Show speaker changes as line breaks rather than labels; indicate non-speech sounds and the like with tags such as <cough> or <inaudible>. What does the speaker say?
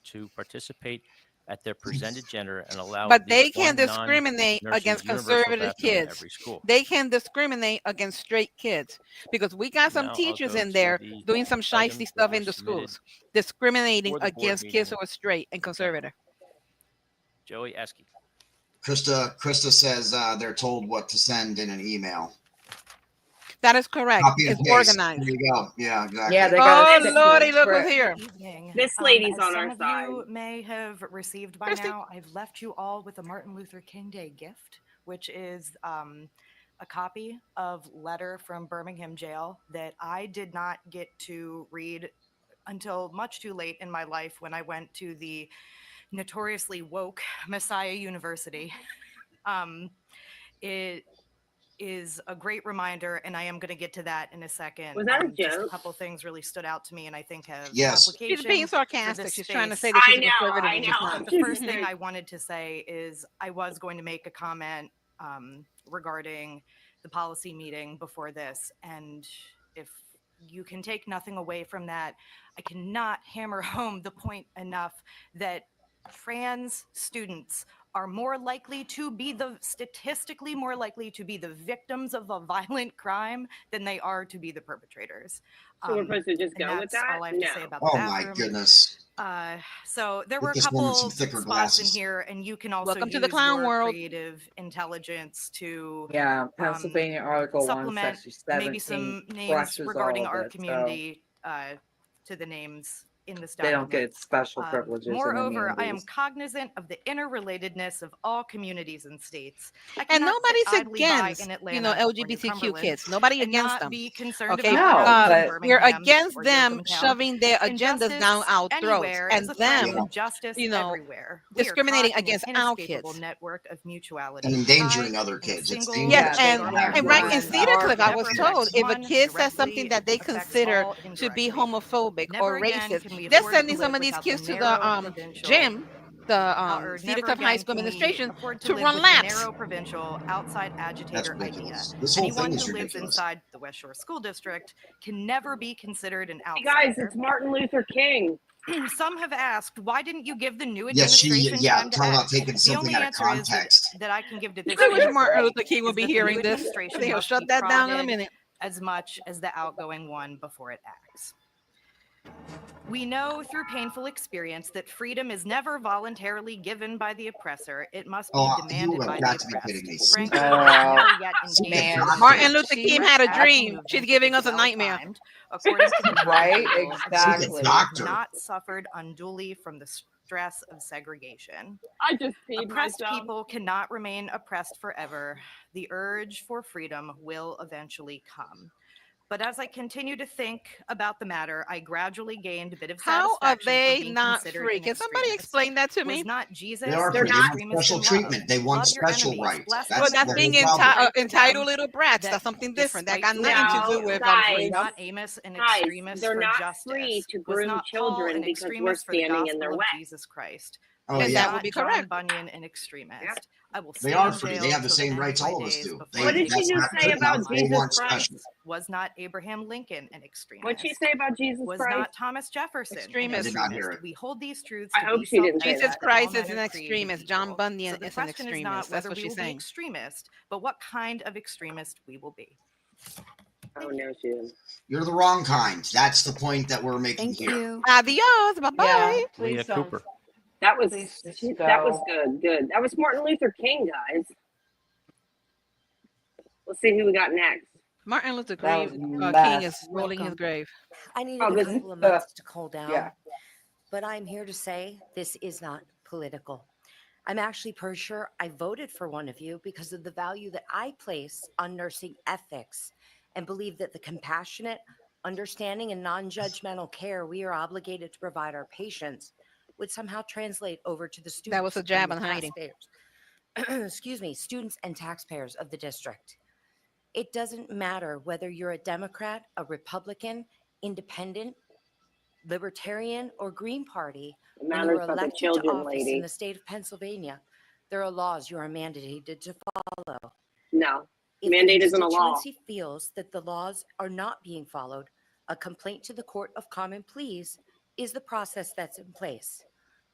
to participate at their presented gender and allow.
But
at
they
least
can
one
discriminate
non-nurse's
against
universal
conservative
bathroom at
kids.
Every school.
They can discriminate against straight kids because we got some
Now I'll
teachers
go
in
to
there
the
doing some
items
shiesty
that
stuff
were
in the
submitted.
schools, discriminating
for the board
against kids who
meeting.
are straight and conservative.
Joey Eske.
Krista, Krista says uh, they're told what to send in an email.
That is correct.
Copy and
It's
paste.
organized.
There you go. Yeah, exactly.
Yeah, they got
Oh
it.
lordy, look who's
Correct.
here.
evening.
This
Um,
lady's
as
on our
some of you
side.
May have received by
Christy.
now, I've left you all with a Martin Luther King Day gift, which is um, a copy of letter from Birmingham jail that I did not get to read until much too late in my life when I went to the notoriously woke Messiah University. Um, it is a great reminder, and I am going to get to that in a second.
Was that a
Um, just
joke?
A couple things really stood out to me, and I think have
Yes.
She's
application.
being sarcastic. She's trying to say
space.
that
I
she's a
know,
conservative.
I
<laughs> and she's
know.
not.
The first thing I wanted to say is I was going to make a comment um, regarding the policy meeting before this. And if you can take nothing away from that, I cannot hammer <laughs> home the point enough that trans students are more likely to be the statistically more likely to be the victims of a violent crime than they are to be the perpetrators.
So we're
Um,
supposed to just
and
go with
that's
that?
all I have to say
No.
about the
Oh my
bathroom.
goodness.
Uh, so there
Get
were a
this
couple
woman some
of
thicker
spots
glasses.
in here, and you can also
Welcome
use
to the clown
your
world.
creative intelligence to
Yeah, Pennsylvania Article One,
Um, supplement
Section Seventeen.
maybe some names
crushes
regarding
all of
our
it, so
community uh, to the names in this
They don't
document.
get special
Um,
privileges. and
moreover, I am
immunities.
cognizant of the interrelatedness of all communities and states. I
And
cannot sit
nobody's
idly by
against,
in
you know,
Atlanta or in
LGBTQ
Cumberland
kids. Nobody
and
against
not
them.
Be concerned
Okay,
about
No,
outcomes in
but-
We're
Birmingham
against
or your
them
hometown.
shoving their agendas
Injustice
down our throats
anywhere
and
is a threat
them
to justice
you know,
everywhere. We are
discriminating
caught in an
against our
inescapable
kids.
Network of mutuality.
And endangering
Pride
other
in a
kids. It's
single
dangerous.
Yes,
Yeah,
and,
state
they don't
and right in
run
one
Cedar
our
Click, I
never
was
affects
told if a
one
kid says
directly,
something
it
that they
affects
consider
all
to be
indirectly.
homophobic
Never
or
again
racist,
can we
they're
afford to
sending some
live
of these
without
kids to
narrow
the um,
provincial-
gym, the
uh,
um,
or
Cedar
never
Click High
again
School
can we
Administration.
afford
to
live
run
with the
laps.
Narrow provincial outside
That's
agitator idea.
ridiculous. This whole
Anyone
thing is
who lives
ridiculous.
inside the West Shore School District can never be considered an
Hey, guys,
outsider.
it's Martin Luther King.
Some have asked, why didn't you give the new
Yeah,
administration
she, yeah,
time to
talking
act?
about taking
The
something
only
out of
answer is that-
context.
That I can give to
I
this.
wish
group
Martin Luther King would be
is that the
hearing
new
this.
administration
They'll
must
shut
be
that down in a
prodded
minute.
as much as the outgoing one before it acts. We know through painful experience that freedom is never voluntarily given by the oppressor. It must be
Oh, you
demanded
have
by
got
the
to be kidding me.
oppressed. Frankly,
Oh,
I've
<laughs>
never yet
man.
engaged with
Martin
it.
Luther
She
King
must
had a
act
dream.
movement
She's giving us a nightmare.
well-timed, according to the
Right,
Bible, and
exactly.
she has
Doctor.
Not suffered unduly from the stress of segregation.
I just peed
Oppressed
myself.
um
people cannot remain oppressed forever. The urge for freedom will eventually come. But as I continue to think about the matter, I gradually gained a bit of
How
satisfaction.
are
from
they
being
not
considered
free?
an
Can somebody
extremist.
explain that to
Was
me?
not Jesus.
They are
an
free. They want
extremist
special
in love.
treatment. They want
Love your
special
enemies.
rights.
Bless
That's
Well,
them.
the
that's being
whole problem. Oh,
enti- uh,
Right for
entitled
them
little brats.
that
That's something different. That got
despite
nothing to do
No,
with um,
guys,
was
freedom.
not Amos an
Guys,
extremist
they're
for
not
justice.
free to
was
groom
not Paul
children
an
because we're
extremist for the
standing in their
gospel
way.
of Jesus Christ.
Oh,
Yes,
Was
yeah.
that would
not
be
John
correct.
Bunyan an extremist. I will
They are
stand
free. They
veiled
have the
till
same
end
rights
of my
all of us
days
do.
before
They-
the
What did she
gates
that's
just
of
not
say
hell
good
about
enough.
are
They
Jesus
want
opened.
Christ?
special.
Was not Abraham Lincoln an extremist?
What'd she say about Jesus
was
Christ?
not Thomas Jefferson. an
Extremist.
I did not hear
extremist?
it.
We hold these truths.
I
to
hope
be
she didn't say
Jesus
self-evident,
that.
that all
Christ is
men
an
are created
extremist.
equal.
John Bunyan
So the
is an
question is not
extremist. That's
whether
what
we
she's
will be
saying.
extremist, but what kind of extremist we will be.
Oh, no, she didn't.
You're the wrong kind. That's the point that we're making
Thank
here.
you.
Adios. Bye bye.
Yeah, please
Leah
don't.
Cooper.
That was
Please just
she- that was
go.
good, good. That was Martin Luther King, guys. Let's see who we got next.
Martin Luther
That
Grave,
was
uh, King
mess.
is rolling his
Welcome.
grave.
I needed
Oh,
a
this is
couple of
the-
minutes to cool down.
yeah.
But I'm here to say this is not political. I'm actually pretty sure I voted for one of you because of the value that I place on nursing ethics and believe that the compassionate, understanding, and non judgmental care we are obligated to provide our patients would somehow translate over to the students.
was a
and
jab
the
on hiding.
taxpayers- <clears throat> Excuse me, students and taxpayers of the district. It doesn't matter whether you're a Democrat, a Republican, independent, libertarian, or Green Party.
It
When you
matters
are
about the
elected to
children,
office in
lady.
the state of Pennsylvania, there are laws you are mandated to follow.
No.
If the
Mandate isn't a law.
constituency Feels that the laws are not being followed, a complaint to the Court of Common Pleas is the process that's in place.